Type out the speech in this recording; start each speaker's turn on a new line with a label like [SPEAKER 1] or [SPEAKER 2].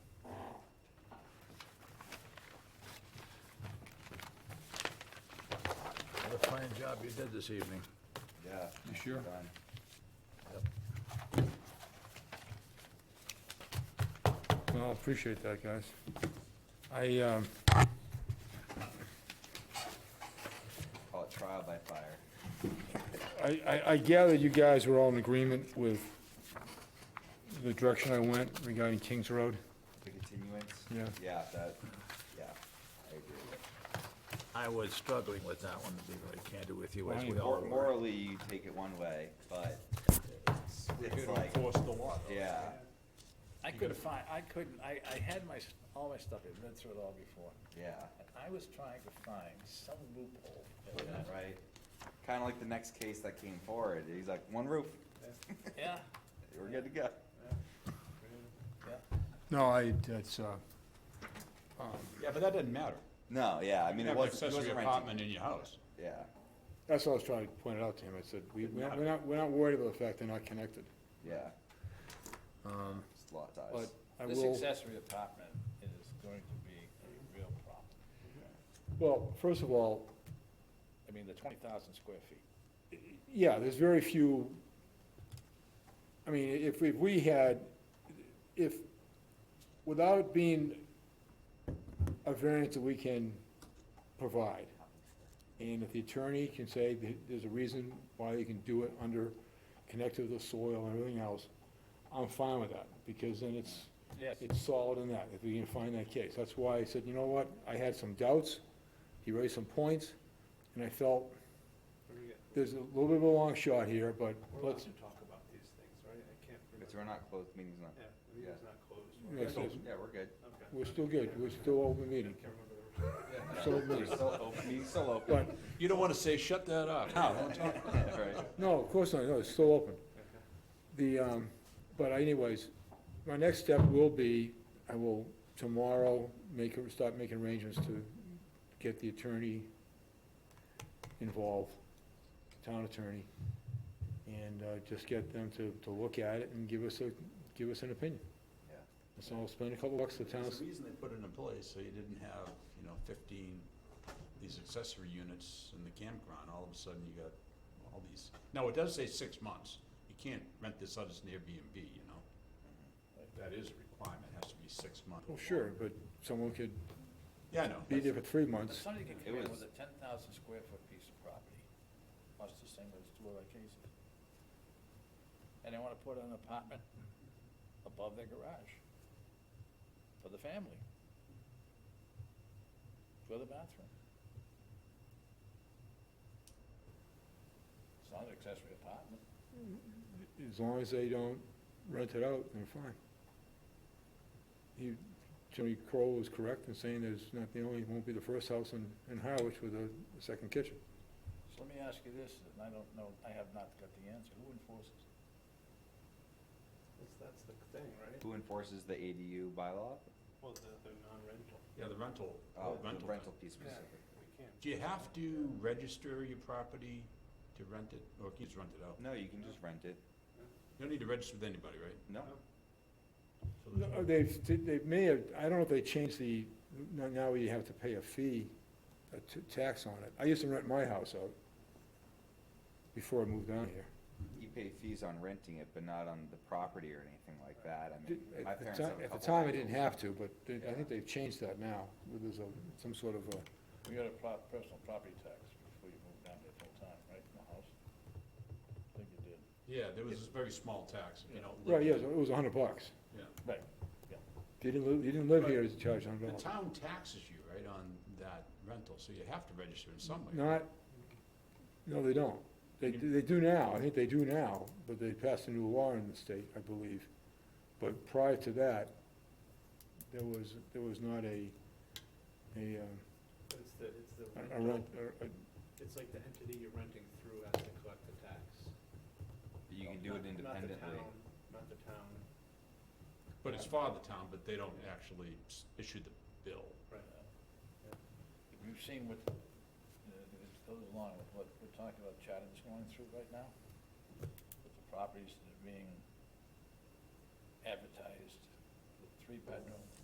[SPEAKER 1] fine job you did this evening.
[SPEAKER 2] Yeah.
[SPEAKER 3] You sure?
[SPEAKER 2] done.
[SPEAKER 3] Well, I appreciate that, guys. I, um,
[SPEAKER 2] Call it trial by fire.
[SPEAKER 3] I, I- I gather you guys were all in agreement with the direction I went regarding Kings Road?
[SPEAKER 2] The continuance?
[SPEAKER 3] Yeah.
[SPEAKER 2] Yeah, that, yeah, I agree with.
[SPEAKER 1] I was struggling with that one, to be very candid with you, as
[SPEAKER 3] Well,
[SPEAKER 1] we all
[SPEAKER 2] Mor-
[SPEAKER 1] were.
[SPEAKER 2] Morally, you take it one way, but it's, it's like,
[SPEAKER 4] the law.
[SPEAKER 2] yeah,
[SPEAKER 4] I couldn't find, I couldn't, I, I had my, s- all my stuff, I'd read through it all before,
[SPEAKER 2] yeah,
[SPEAKER 4] and I was trying to find some loophole. that would-
[SPEAKER 2] right? Kinda like the next case that came forward, he's like, one roof,
[SPEAKER 4] Yeah,
[SPEAKER 2] we're good to go.
[SPEAKER 4] yeah.
[SPEAKER 3] No, I, that's, uh,
[SPEAKER 5] Yeah, but that doesn't matter.
[SPEAKER 2] No, yeah, I mean, it
[SPEAKER 5] You have
[SPEAKER 2] wasn't,
[SPEAKER 5] an
[SPEAKER 2] he
[SPEAKER 5] accessory
[SPEAKER 2] wasn't renting,
[SPEAKER 5] apartment in your house.
[SPEAKER 2] yeah,
[SPEAKER 3] that's what I was trying to point out to him. I said, we- we're not, we're not- we're not worried about the fact they're not connected.
[SPEAKER 2] yeah. Um. It's lot
[SPEAKER 3] But
[SPEAKER 2] ties,
[SPEAKER 3] I
[SPEAKER 4] This
[SPEAKER 3] will,
[SPEAKER 4] accessory apartment is going to be a real problem.
[SPEAKER 3] well, first of all,
[SPEAKER 4] I mean, the twenty thousand square feet.
[SPEAKER 3] yeah, there's very few, I mean, if we, we had, if, without it being a variance that we can provide, and if the attorney can say that there's a reason why they can do it under, connected to the soil and everything else, I'm fine with that, because then it's,
[SPEAKER 4] Yes.
[SPEAKER 3] it's solid in that, if we can find that case. That's why I said, you know what, I had some doubts, he raised some points, and I felt there's a little bit of a long shot here, but
[SPEAKER 6] We're allowed
[SPEAKER 3] let's,
[SPEAKER 6] to talk about these things, right? I can't
[SPEAKER 2] because
[SPEAKER 6] remember.
[SPEAKER 2] we're not closed, meeting's not,
[SPEAKER 6] Yeah, the meeting's not closed.
[SPEAKER 3] Yeah, so-
[SPEAKER 2] yeah, we're good.
[SPEAKER 6] Okay.
[SPEAKER 3] we're still good, we're still open meeting.
[SPEAKER 6] Can't remember the word.
[SPEAKER 3] So,
[SPEAKER 2] We're still open, meeting's still open.
[SPEAKER 3] but,
[SPEAKER 5] You don't want to say, shut that up.
[SPEAKER 2] Right.
[SPEAKER 3] no, of course not, no, it's still open. The, um, but anyways, my next step will be, I will tomorrow make, a- start making arrangements to get the attorney involved, town attorney, and, uh, just get them to, to look at it and give us a, give us an opinion.
[SPEAKER 2] Yeah.
[SPEAKER 3] So I'll spend a couple bucks to town,
[SPEAKER 5] There's a reason they put it in place, so you didn't have, you know, fifteen, these accessory units in the campground, all of a sudden you got all these. Now, it does say six months, you can't rent this out as an Airbnb, you know? That is a requirement, it has to be six months.
[SPEAKER 3] well, oh, sure, but someone could
[SPEAKER 5] Yeah, I know.
[SPEAKER 3] be there for three
[SPEAKER 4] But
[SPEAKER 3] months.
[SPEAKER 4] somebody can come
[SPEAKER 2] It
[SPEAKER 4] in
[SPEAKER 2] was-
[SPEAKER 4] with a ten thousand square foot piece of property, much the same as two of our cases. And they wanna put an apartment above their garage for the family. For the bathroom. It's not an accessory apartment.
[SPEAKER 3] As long as they don't rent it out, they're fine. He, Jimmy Crowe was correct in saying there's not the only, won't be the first house in, in Harwich with a second kitchen.
[SPEAKER 4] So let me ask you this, and I don't know, I have not got the answer, who enforces?
[SPEAKER 6] That's, that's the thing, right?
[SPEAKER 2] Who enforces the ADU bylaw?
[SPEAKER 6] Well, the, the non-rental.
[SPEAKER 5] Yeah, the rental,
[SPEAKER 2] Oh, the
[SPEAKER 5] rental.
[SPEAKER 2] rental piece
[SPEAKER 6] Yeah,
[SPEAKER 2] specifically.
[SPEAKER 6] we can't.
[SPEAKER 5] Do you have to register your property to rent it, or can you just rent it out?
[SPEAKER 2] No, you can just rent it.
[SPEAKER 5] You don't need to register with anybody, right?
[SPEAKER 2] No,
[SPEAKER 3] No, uh, They've, they may have, I don't know if they changed the, now- now you have to pay a fee, a t- tax on it. I used to rent my house out before I moved down here.
[SPEAKER 2] you pay fees on renting it, but not on the property or anything like that. I mean,
[SPEAKER 3] At
[SPEAKER 2] my
[SPEAKER 3] the
[SPEAKER 2] parents
[SPEAKER 3] ti-
[SPEAKER 2] have
[SPEAKER 3] At
[SPEAKER 2] a
[SPEAKER 3] the
[SPEAKER 2] couple
[SPEAKER 3] time, I
[SPEAKER 2] rentals.
[SPEAKER 3] didn't have to, but they- I think they've changed that now, where there's a, some sort of a,
[SPEAKER 4] We got a pro- personal property tax before you moved down there full-time, right, in the house? I think you did.
[SPEAKER 5] Yeah, there was this very small tax, if you don't live.
[SPEAKER 3] right, yeah, it was a hundred bucks.
[SPEAKER 5] Yeah.
[SPEAKER 4] Right.
[SPEAKER 3] If you didn't live, you didn't live here, it's charged a hundred dollars.
[SPEAKER 5] The town taxes you, right, on that rental, so you have to register in some way.
[SPEAKER 3] Not, no, they don't. They, do- they do now, I think they do now, but they passed a new law in the state, I believe. But prior to that, there was, there was not a, a, um,
[SPEAKER 6] But it's the, it's the
[SPEAKER 3] a- a rent,
[SPEAKER 6] rental,
[SPEAKER 3] a- a-
[SPEAKER 6] it's like the entity you're renting through has to collect the tax.
[SPEAKER 2] But You can do it
[SPEAKER 6] Not-
[SPEAKER 2] independently.
[SPEAKER 6] Not the town, not the town,
[SPEAKER 5] But it's for the town, but they don't actually s- issue the bill.
[SPEAKER 6] right.
[SPEAKER 4] You've seen what, uh, it goes along with what we're talking about Chatham's going through right now, with the properties that are being advertised, the three-bedroom,